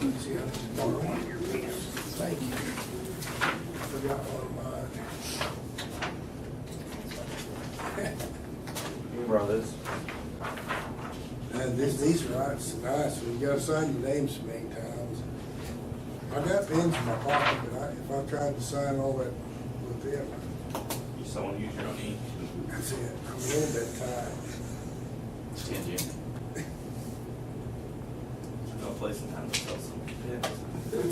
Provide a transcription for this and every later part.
you have to borrow one of your pens. Thank you. Forgot one You brought this. of mine. Uh, this, these are nice, nice, you gotta sign your name so many times. I got pens in my pocket, but I, if I tried to sign all that with them, You someone use your own ink. that's it, I'm a little bit tired. Stand you. There's no place in town to sell some pins. They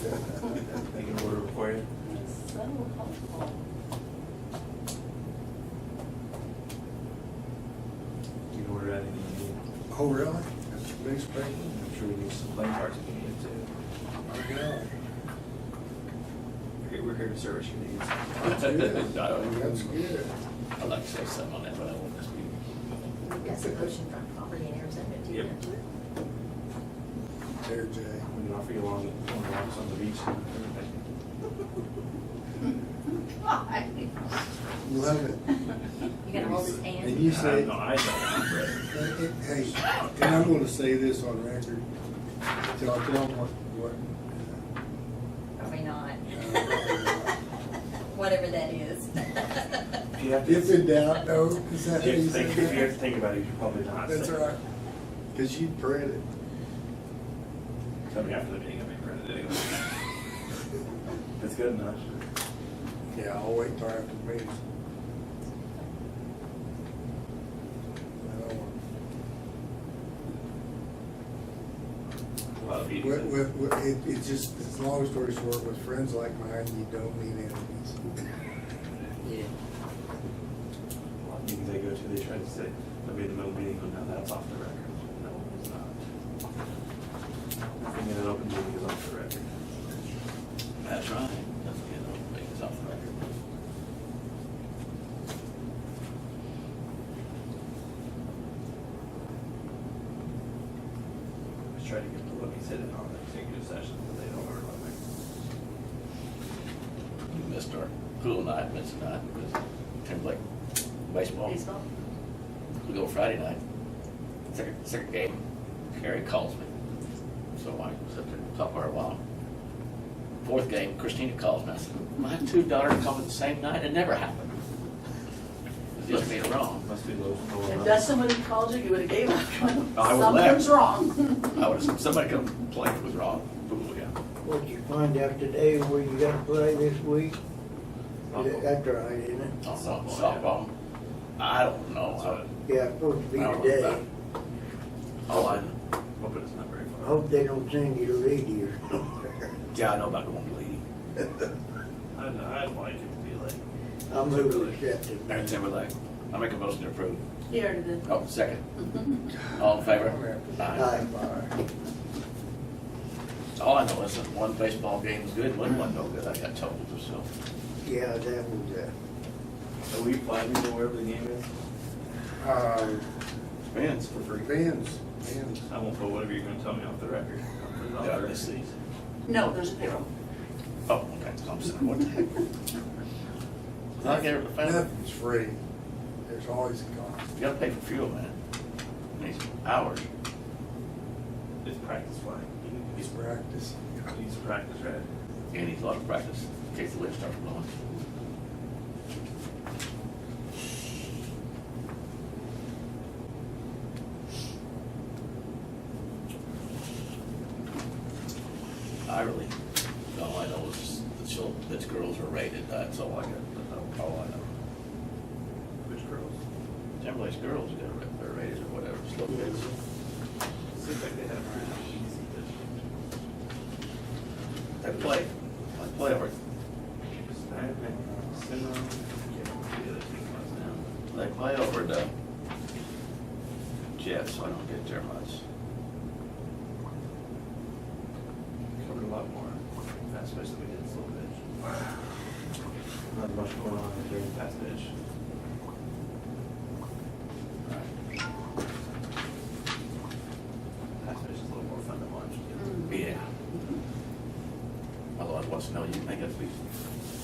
can order it for you. It's so helpful. You can order anything you need. Oh, really? That's a big spring. I'm sure we need some playing cards if you need to. My God. Okay, We're here to service your needs. That's good. That's good. I'd like to say something on that, but I won't just be. We've got some oceanfront property in Arizona, do you Yep. know? There, Jay. We can offer you long, long walks on the beach. Why? Love it. You gonna hold his And hand? you said, No, I don't, Brett. hey, and I'm gonna say this on record, till I tell them what, what, Probably uh, not. Whatever that is. If you have to, uh, if if in doubt, no, is that you what you have to think, if you have said? to think about it, you probably not. That's say- all right, cause you read it. Tell me after the meeting, I may print it anyway. It's good enough. Yeah, I'll wait till after the meeting. I don't want- A lot of meetings. With, with, with- it, it's just, it's a long story short, with friends like mine, you don't need enemies. Yeah. A lot of meetings I go to, they try to say, I made the middle meeting, but now that's off the record. No, it's not. Nothing in an open meeting is off the record. That's right. That's good. I'll make this off the record. I was trying to get the levy sitting on the executive session, but they don't work on it. You missed our pool night, missed night, because Tim's like baseball. Baseball? We go Friday night, second, second game, Harry calls me. So I sit there and talk for a while. Fourth game, Christina calls me. I said, my two daughters called me the same night. It never happened. It was just me wrong. Must be low. If that's somebody who called you, you would have gave up. I would've left. Something's wrong. I would have, somebody come complain it was wrong. Pool, yeah. What'd you find out today where you gotta play this week? Softball. That's right, isn't it? Softball, Softball, yeah. softball. I don't know. I- Yeah, it's supposed to I be don't today. know. Oh, I, Hope it's not very I far. hope they don't send you to Lady or somewhere. yeah, I know about going to Lee. I'd, I'd like it to be like. I'm moving accepted. Mayor Timberlake, I make a motion to approve. You already did. Oh, second. All in favor? Aye. Bye. All I know is that one baseball game was good, one wasn't no good, I got told, so. Yeah, that was, uh, Are we flying to wherever the game is? Uh, Fans for free. Ben's, Ben's. I won't put whatever you're gonna tell me off the record. I'll put it on the Yeah, I record. missed these. No, there's a payroll. Oh, okay, I'm sorry, what the heck? I get it, found it. Nothing's free. There's always a cost. You gotta pay for fuel, man. These hours. It's practice flying. It's practice. He needs to practice, right? And he's a lot of practice, in case the wind starts blowing. I really, all I know is the chil, that girls are rated, that's all I got, that's all I know. Which girls? Timberlake's girls get ra- they're rated or whatever, slow kids. Seems like they had a pretty easy district. They play, they play over, Sniping, Sinner, the other team was now. they play over the Jets, so I don't get there much. Covered a lot more, especially we did slow pitch. Not much going on during fast pitch.